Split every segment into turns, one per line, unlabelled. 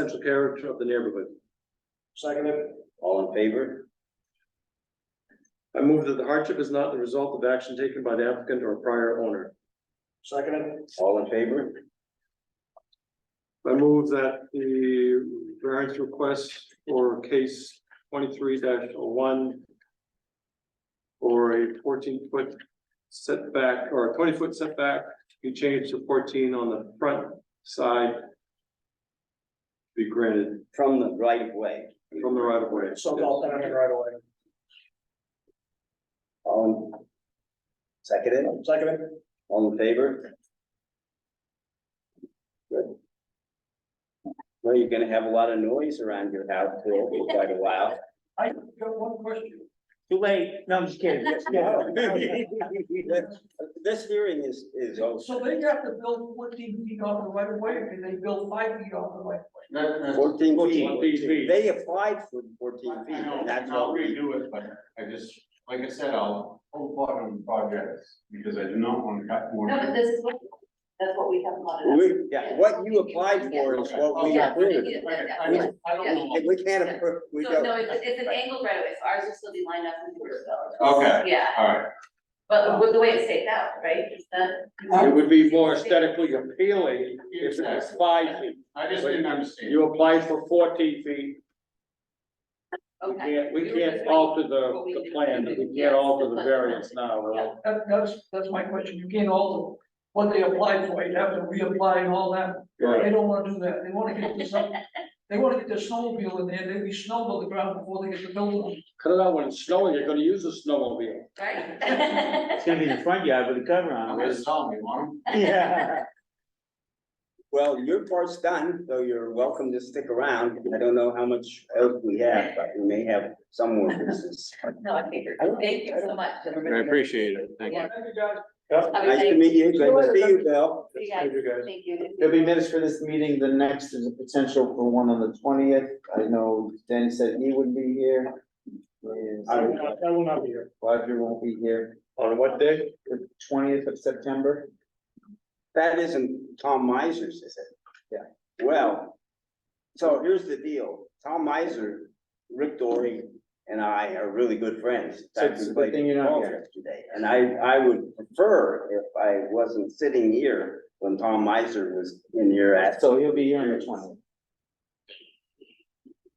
essential character of the neighborhood.
Seconded.
All in favor?
I move that the hardship is not the result of action taken by the applicant or prior owner.
Seconded.
All in favor?
I move that the variance request for case twenty-three oh one for a fourteen-foot setback or a twenty-foot setback be changed to fourteen on the front side be granted
From the right of way.
from the right of way.
So called tenant right away.
All in. Seconded,
Seconded.
all in favor? Good. Well, you're gonna have a lot of noise around your house for quite a while.
I got one question.
Too late. No, I'm just kidding. Yes, yeah.
This hearing is, is also
So they have to build fourteen feet off the right of way, or can they build five feet off the right? of way?
fourteen
Fourteen
feet.
feet.
They applied for fourteen feet,
I know,
and that's
and I'll
all. we-
redo it, but I just, like I said, I'll hold part on projects, because I do not want to cut more.
No, but this is what, that's what we have modeled.
We, yeah, what you applied for is what we
Yeah,
approved.
yeah,
Right,
yeah,
I
yeah.
don't, I don't know.
And we can't approve, we
So,
don't.
no, it's, it's an angled right away, so ours will still be lined up with yours
Okay,
though. Yeah,
all right,
but with the way it's staked out, right, is that?
It would be more aesthetically appealing if it was five feet.
I just didn't understand.
You applied for fourteen feet, we
Okay.
can't, we
We were
can't
just-
alter
what
the,
we
the
did.
plan, we
Yes,
can't alter
the
the
plan.
variance now, well.
That, that's, that's my question. You can't alter what they applied for. You'd have to reapply and all that.
Right.
They don't wanna do that. They wanna get this up. They wanna get their snowmobile in there. They be snowed on the ground before they get the building.
Cut it out when it's snowing, you're gonna use a snowmobile.
It's
Right?
gonna be in the front yard with a cover
I'm
on
gonna
it.
sell me one.
Yeah.
Well, your part's done, so you're welcome to stick around. I don't know how much else we have, but we may have some more business.
No, I figured, thank you so much.
appreciate it, thank
you.
Thank you, guys.
Have a
Nice to
nice-
meet you. Good to see you, Bill.
See you guys.
you guys.
Thank you.
There'll be minutes for this meeting, the next is a potential for one on the twentieth, I know Danny said he would be here. And
I
will not be here.
Roger won't be here,
On what day?
the twentieth of September,
That isn't Tom Miser's, is it?
Yeah.
Well, so here's the deal. Tom Miser, Rick Dory and I are really good friends. In
So
fact,
it's
we
a good thing you're
played
not
golf
here.
yesterday. And I, I would prefer if I wasn't sitting here when Tom Miser was in here at
so he'll be here on the twentieth.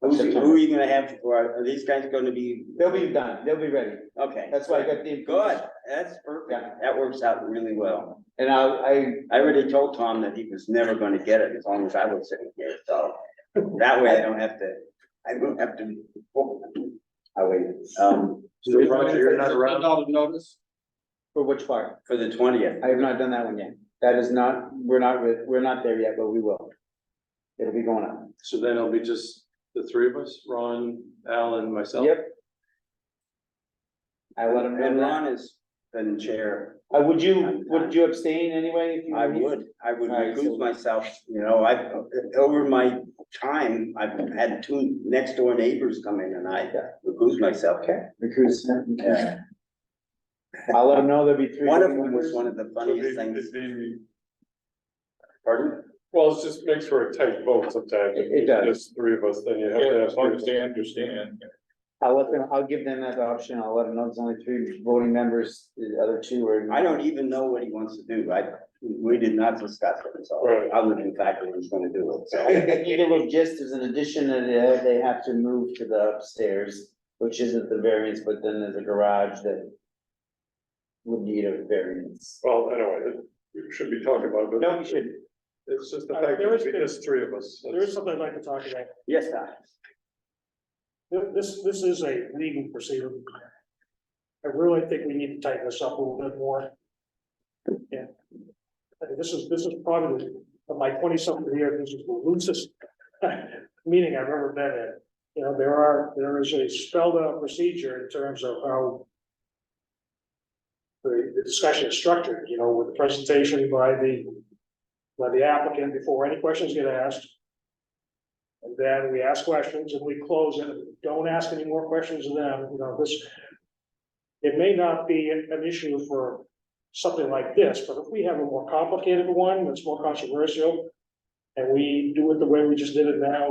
Who's, who are you gonna have for, our- are these guys gonna be?
They'll be done, they'll be ready,
Okay.
that's why I got the.
Good, that's perfect, that works out really well.
And I, I,
I already told Tom that he was never gonna get it as long as I was sitting here, so that way I don't have to, I don't have to. I wait, um,
So Roger, you're not around. Out of notice?
for which part?
for the twentieth,
I have not done that one yet, that is not, we're not, re- we're not there yet, but we will. It'll be going on.
So then it'll be just the three of us, Ron, Al and myself?
Yep. I let him
and
know that.
Ron has been chair.
Uh, would you, would you abstain anyway? if you
I
were here?
would, I would
All right, so-
recuse myself, you know, I, over my time, I've had two next door neighbors come in and I recuse myself.
Recuse.
Yeah.
I'll let them know there'll be three.
One of them was one of the funniest things, pardon?
Well, it's just makes for a tight vote sometimes.
It- it does.
Just three of us, then you have to have. As long as they understand.
I'll let them, I'll give them that option, I'll let them know there's only three voting members, the other two are.
I don't even know what he wants to do, I, we did not discuss it, so,
Right.
other than the fact that he's gonna do it, so.
Either way, just as an addition, and they- they have to move to the upstairs, which isn't the variance, but then there's a garage that would need a variance.
Well, anyway, we should be talking about it, but
No, we should.
it's just the
Uh,
fact that
there is
it's
been-
just three of us.
There is something I'd like to talk about.
Yes, sir.
Th- This, this is a legal procedure. I really think we need to tighten this up a little bit more. Yeah. I think This is, this is probably, of my twenty-something years, this is the loosest meeting I've ever been in. You know, there are, there is a spelled out procedure in terms of how the the discussion is structured, you know, with the presentation by the, by the applicant before any questions get asked. And then we ask questions and we close it. Don't ask any more questions of them, you know, this. It may not be an issue for something like this, but if we have a more complicated one that's more controversial. And we do it the way we just did it now,